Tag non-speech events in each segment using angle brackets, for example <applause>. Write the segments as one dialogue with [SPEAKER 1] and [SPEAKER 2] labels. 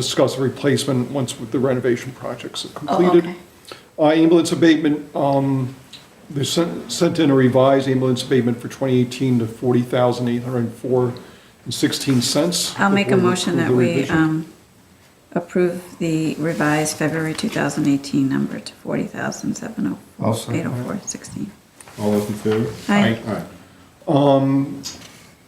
[SPEAKER 1] discuss replacement once the renovation projects are
[SPEAKER 2] Oh,
[SPEAKER 1] completed.
[SPEAKER 2] okay.
[SPEAKER 1] Uh, Ambulance abatement, um, they sent sent in a revised ambulance abatement for 2018 to 40,804 and 16 cents.
[SPEAKER 2] I'll make a motion that we
[SPEAKER 1] Revision.
[SPEAKER 2] um, approve the revised February 2018 number to 40,704.
[SPEAKER 3] I'll second that.
[SPEAKER 2] 804.16.
[SPEAKER 3] All those in favor?
[SPEAKER 2] Aye.
[SPEAKER 3] Aye.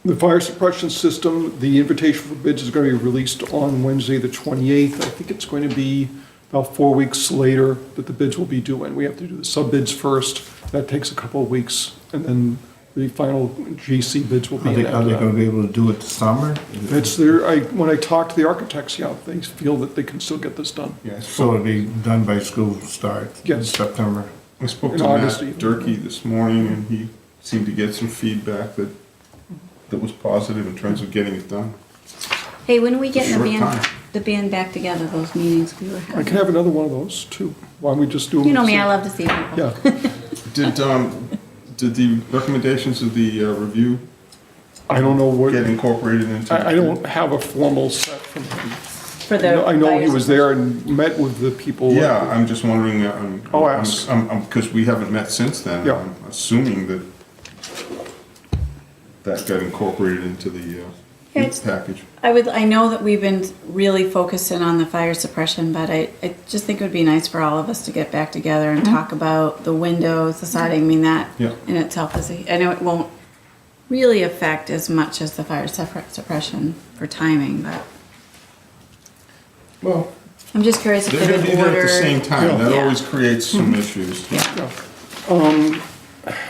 [SPEAKER 1] The fire suppression system, the invitation for bids is going to be released on Wednesday, the 28th. I think it's going to be about four weeks later that the bids will be due, and we have to do the sub-bids first. That takes a couple of weeks, and then the final GC bids will be
[SPEAKER 3] Are
[SPEAKER 1] in
[SPEAKER 3] they, are they
[SPEAKER 1] after
[SPEAKER 3] gonna
[SPEAKER 1] that.
[SPEAKER 3] be able to do it this summer?
[SPEAKER 1] It's their, I, when I talk to the architects, yeah, they feel that they can still get this done.
[SPEAKER 4] Yes.
[SPEAKER 3] So it'll be done by school start in
[SPEAKER 1] Yes.
[SPEAKER 3] September.
[SPEAKER 4] I spoke
[SPEAKER 1] In
[SPEAKER 4] to
[SPEAKER 1] August,
[SPEAKER 4] Matt
[SPEAKER 1] even.
[SPEAKER 4] Durkey this morning, and he seemed to get some feedback that, that was positive in terms of getting it done.
[SPEAKER 2] Hey, when are we getting the
[SPEAKER 4] Short
[SPEAKER 2] band,
[SPEAKER 4] time.
[SPEAKER 2] the band back together, those meetings we were
[SPEAKER 1] I
[SPEAKER 2] having?
[SPEAKER 1] can have another one of those, too. Why don't we just do them?
[SPEAKER 2] You know me, I love to see people.
[SPEAKER 1] Yeah,
[SPEAKER 4] Did, um, did the recommendations of the uh, review
[SPEAKER 1] I don't know what,
[SPEAKER 4] get
[SPEAKER 1] I,
[SPEAKER 4] incorporated into?
[SPEAKER 1] I don't have a formal set from him.
[SPEAKER 2] For the.
[SPEAKER 1] I know he
[SPEAKER 2] fires.
[SPEAKER 1] was there and met with the people.
[SPEAKER 4] Yeah, I'm just wondering, uh, I'm.
[SPEAKER 1] I'll ask.
[SPEAKER 4] Because we haven't met since then.
[SPEAKER 1] Yeah.
[SPEAKER 4] I'm Assuming that that got incorporated into the uh,
[SPEAKER 2] Yeah, it's-
[SPEAKER 4] package.
[SPEAKER 2] I would, I know that we've been really focusing on the fire suppression, but I, I just think it would be nice for all of us to get back together and talk about the windows, the siding, I mean, that
[SPEAKER 4] Yeah.
[SPEAKER 2] in itself is, a- I know it won't really affect as much as the fire suffra- suppression for timing, but
[SPEAKER 4] Well,
[SPEAKER 2] I'm just curious if
[SPEAKER 4] they're
[SPEAKER 2] they
[SPEAKER 4] gonna be
[SPEAKER 2] would
[SPEAKER 4] there at the
[SPEAKER 2] order.
[SPEAKER 4] same time. That
[SPEAKER 2] Yeah.
[SPEAKER 4] always creates some
[SPEAKER 1] Mm-hmm.
[SPEAKER 4] issues.
[SPEAKER 2] Yeah,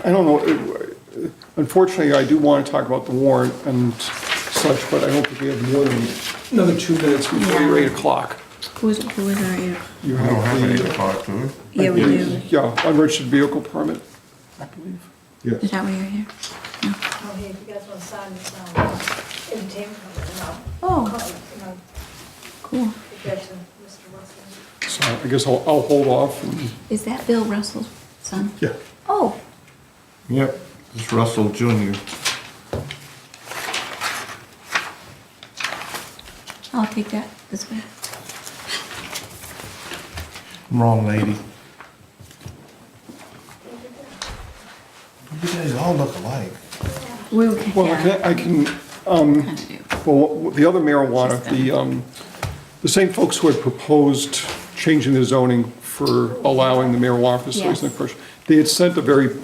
[SPEAKER 1] I don't know, it- unfortunately, I do want to talk about the warrant and such, but I don't think we have more than another two minutes before
[SPEAKER 2] Yeah.
[SPEAKER 1] your eight o'clock.
[SPEAKER 2] who's, who is our, yeah,
[SPEAKER 1] You
[SPEAKER 3] I don't have
[SPEAKER 1] the-
[SPEAKER 3] any o'clock, do we?
[SPEAKER 2] yeah, we do,
[SPEAKER 1] Yeah, unregistered vehicle permit, I believe.
[SPEAKER 4] Yes.
[SPEAKER 2] is that why you're here?
[SPEAKER 5] Oh, here, if you guys want to sign this, um, in team, and I'll.
[SPEAKER 2] Oh.
[SPEAKER 5] call, You know,
[SPEAKER 2] Cool.
[SPEAKER 5] if you guys, Mr. Wilson.
[SPEAKER 1] So I guess I'll, I'll hold off. and-
[SPEAKER 2] Is that Bill Russell's son?
[SPEAKER 1] Yeah.
[SPEAKER 2] Oh,
[SPEAKER 3] Yep, it's Russell Junior.
[SPEAKER 2] I'll take that this way.
[SPEAKER 3] Wrong lady. You guys all look alike.
[SPEAKER 2] We can,
[SPEAKER 1] Well, I
[SPEAKER 2] yeah,
[SPEAKER 1] can, I can,
[SPEAKER 2] kinda do.
[SPEAKER 1] Well, the other marijuana, the, um, the same folks who had proposed changing the zoning for allowing the marijuana facilities in the
[SPEAKER 2] Yes.
[SPEAKER 1] commercial, they had sent a very,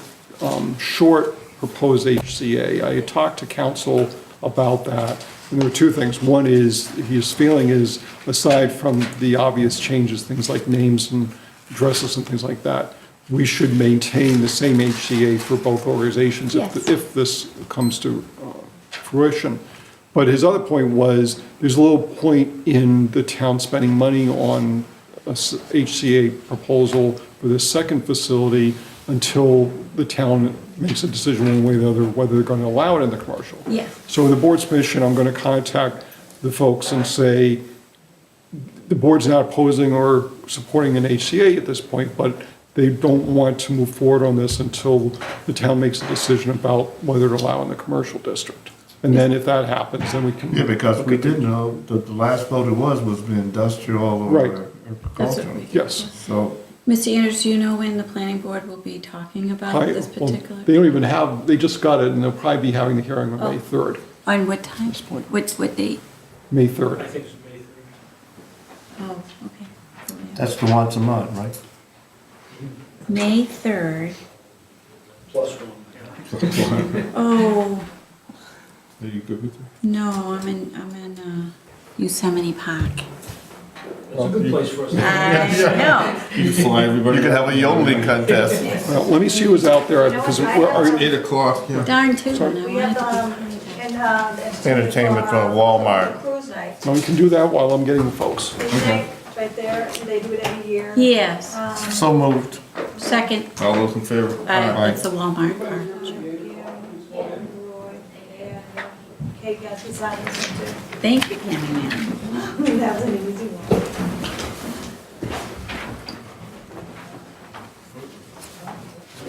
[SPEAKER 1] um, short proposed HCA. I had talked to council about that, and there were two things. One is, his feeling is, aside from the obvious changes, things like names and addresses and things like that, we should maintain the same HCA for both organizations if,
[SPEAKER 2] Yes.
[SPEAKER 1] if if this comes to uh, fruition. But his other point was, there's a little point in the town spending money on a s- HCA proposal for this second facility until the town makes a decision one way or the other, whether they're going to allow it in the commercial.
[SPEAKER 2] Yes.
[SPEAKER 1] So with the board's permission, I'm going to contact the folks and say, the board's not opposing or supporting an HCA at this point, but they don't want to move forward on this until the town makes a decision about whether to allow in the commercial district. And then if that happens, then we can.
[SPEAKER 3] Yeah, because we did know that the last vote it was, was the industrial
[SPEAKER 1] Right.
[SPEAKER 3] or
[SPEAKER 2] That's what we
[SPEAKER 3] agricultural.
[SPEAKER 2] did.
[SPEAKER 1] Yes.
[SPEAKER 3] So,
[SPEAKER 2] Mr. Anders, do you know when the planning board will be talking about
[SPEAKER 1] I-
[SPEAKER 2] this
[SPEAKER 1] well,
[SPEAKER 2] particular?
[SPEAKER 1] They don't even have, they just got it and they'll probably be having the hearing on May
[SPEAKER 2] Oh.
[SPEAKER 1] 3rd,
[SPEAKER 2] On what time?
[SPEAKER 1] This point.
[SPEAKER 2] What, what date?
[SPEAKER 1] May
[SPEAKER 6] I
[SPEAKER 1] 3rd.
[SPEAKER 6] think it's May 3rd.
[SPEAKER 2] Oh, okay. Oh, yeah.
[SPEAKER 3] that's the once a month, right?
[SPEAKER 2] May third.
[SPEAKER 6] Plus one, yeah.
[SPEAKER 4] Are
[SPEAKER 2] Oh,
[SPEAKER 4] you good with that?
[SPEAKER 2] no, I'm in, I'm in, uh, Yosemite Park.
[SPEAKER 6] It's a good place for us to.
[SPEAKER 2] Uh, I know.
[SPEAKER 4] You fly everybody.
[SPEAKER 3] contest.
[SPEAKER 1] Well, let me see who's out there because
[SPEAKER 5] You know what, I
[SPEAKER 1] we're-
[SPEAKER 5] have
[SPEAKER 4] Eight o'clock, yeah.
[SPEAKER 2] Darn tootin', I
[SPEAKER 5] We
[SPEAKER 2] wanted
[SPEAKER 5] have,
[SPEAKER 2] to
[SPEAKER 5] um, and, um.
[SPEAKER 3] Entertainment from Walmart.
[SPEAKER 5] Cruise night.
[SPEAKER 1] now we can do that while I'm getting the folks.
[SPEAKER 5] Cruise night, right there, they do it every year.
[SPEAKER 2] be. Yes,
[SPEAKER 5] Um,
[SPEAKER 3] So moved.
[SPEAKER 2] second,
[SPEAKER 4] All those in favor?
[SPEAKER 2] uh, it's the Walmart part.
[SPEAKER 5] you know, and Roy, and, um, Kate got to sign this one <laughs> too.
[SPEAKER 2] Thank you, Candy Man.
[SPEAKER 5] That was an easy one.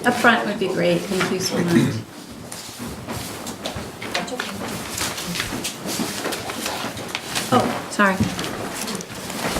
[SPEAKER 2] Up front would be great, thank you so much. Oh, sorry.